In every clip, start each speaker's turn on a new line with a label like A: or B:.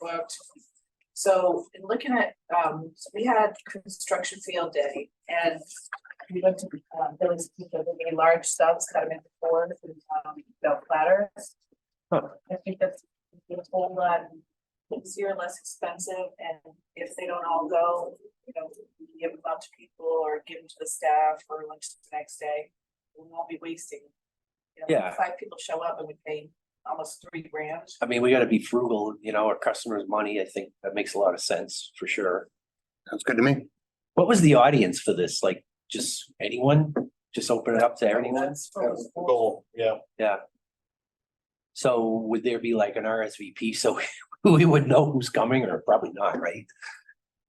A: booked. So in looking at, um, so we had construction field day and we went to, um, Billy's, we did the large subs cut them into fours and, um, built platters.
B: Huh.
A: I think that's a whole lot easier, less expensive, and if they don't all go, you know, we can give them out to people or give them to the staff for lunch the next day. We won't be wasting. you know,
B: Yeah.
A: Five people show up and we pay almost three grand.
B: I mean, we gotta be frugal, you know, our customers' money, I think that makes a lot of sense for sure.
C: Sounds good to me.
B: What was the audience for this? Like, just anyone? Just open it up to anyone?
A: That's for-
C: Goal, yeah.
B: So would there be like an RSVP so we would know who's coming or probably not, right?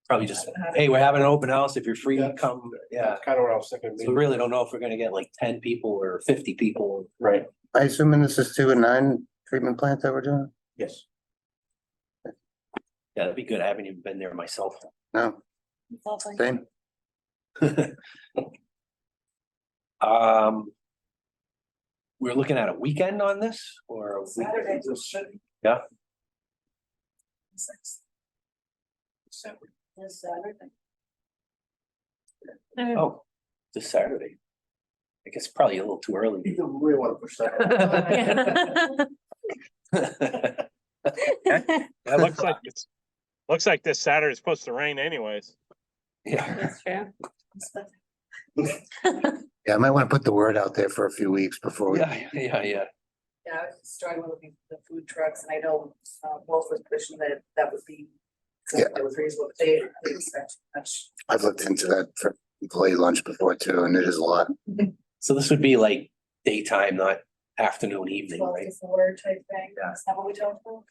B: Probably just, hey, we're having an open house. If you're free,
C: Yeah.
B: come. Yeah.
C: Kind of what I was thinking.
B: So we really don't know if we're gonna get like ten people or fifty people.
C: Right,
D: I assuming this is two and nine treatment plants that we're doing?
C: yes.
B: Yeah, that'd be good. I haven't even been there myself.
D: No, same.
B: Um. We're looking at a weekend on this or? a week-
A: Saturday, just should-
B: Yeah.
A: Six,
B: Saturday.
A: this Saturday.
B: Oh, this Saturday. I guess probably a little too early.
C: really want to push that.
B: That
E: It
B: looks
E: looks like it's, looks like this Saturday is supposed to rain anyways.
B: Yeah,
F: true.
D: Yeah, I might want to put the word out there for a few weeks before we,
B: yeah, yeah, yeah.
A: Yeah, I was struggling with the- the food trucks and I know uh, Wolf was pushing that that would be.
D: Yeah.
A: That was reasonable, but they they expect much.
D: I've looked into that for employee lunch before too, and it is a lot.
B: So this would be like daytime, not afternoon, evening,
A: Twelve
B: right?
A: to four type thing,
B: Yeah.
A: is that what we talked about?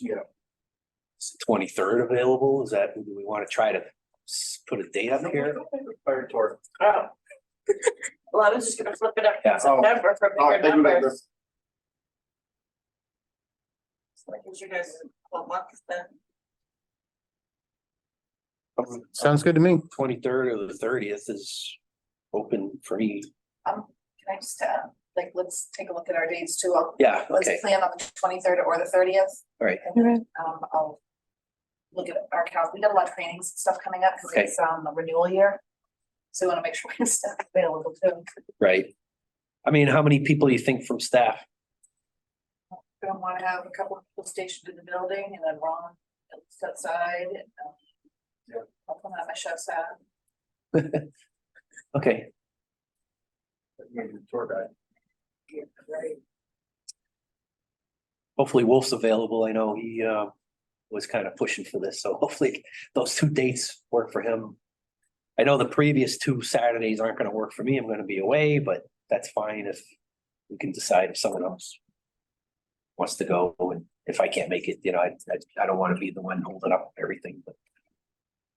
C: Yeah,
B: Twenty-third available, is that, do we want to try to s- put a date up here?
C: fire tour.
A: Oh. Well, I was just gonna flip it up
B: Yeah.
A: to September for
C: Oh,
A: bigger
C: thank you,
A: numbers.
C: Douglas.
A: Like, gives you guys a month then.
D: Sounds good to me.
B: Um, Twenty-third or the thirtieth is open for me.
A: Um, can I just, uh, like, let's take a look at our dates too, I'll,
B: Yeah, okay,
A: let's plan on the twenty-third or the thirtieth.
B: All right.
A: And then, um, I'll look at our calendar, we got a lot of trainings and stuff coming up, because
B: Okay.
A: it's, um, the renewal year. So we wanna make sure we have stuff available too,
B: right. I mean, how many people do you think from staff?
A: we don't wanna have a couple of people stationed in the building, and then Ron, it's outside, and, um. I'll come out my chef's hat.
B: Okay,
C: Maybe the Tour guide.
A: Yeah, Right.
B: hopefully Wolf's available. I know he uh was kind of pushing for this, so hopefully those two dates work for him. I know the previous two Saturdays aren't gonna work for me. I'm gonna be away, but that's fine if we can decide if someone else wants to go and if I can't make it, you know, I I I don't want to be the one holding up everything, but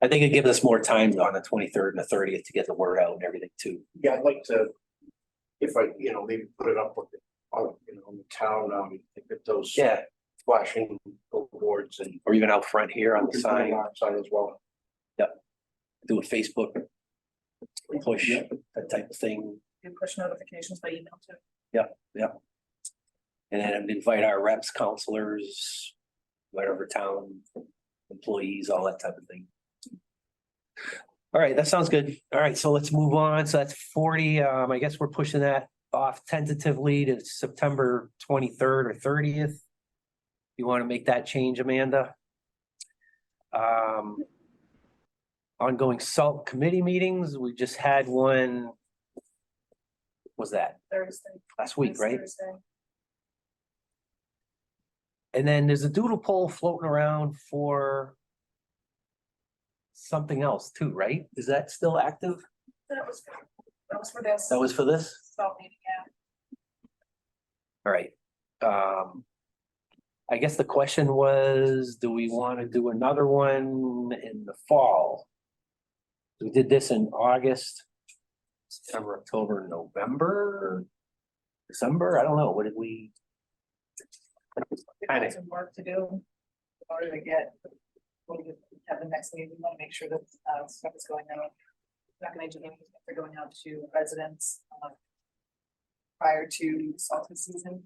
B: I think it gives us more time on the twenty-third and the thirtieth to get the word out and everything too.
C: Yeah, I'd like to, if I, you know, maybe put it up with, the- on, you know, on the town, um, get those
B: Yeah,
C: flashing boards and.
B: or even out front here on the sign,
C: Sign as well.
B: do a Facebook push, that type of thing.
A: Do push notifications by email too.
B: And then invite our reps, counselors, whatever town employees, all that type of thing. All right, that sounds good. All right, so let's move on. So that's forty. Um, I guess we're pushing that off tentatively to September twenty-third or thirtieth. You want to make that change, Amanda? Um. Ongoing salt committee meetings. We just had one. Was that
A: Thursday.
B: last week,
A: this
B: right?
A: Thursday.
B: And then there's a doodle poll floating around for something else too, right? Is that still active?
A: That was, that was for this.
B: That was for this?
A: Salt meeting, yeah.
B: All right. Um, I guess the question was, do we want to do another one in the fall? We did this in August, September, October, November, December. I don't know. What did we?
A: We've
B: Kinda.
A: got some work to do in order to get, when we have the next meeting, we want to make sure that, uh, stuff is going out. We're Not gonna do anything, if they're going out to residents, uh, prior to salty season,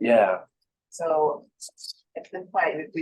B: Yeah.
A: so at this point, we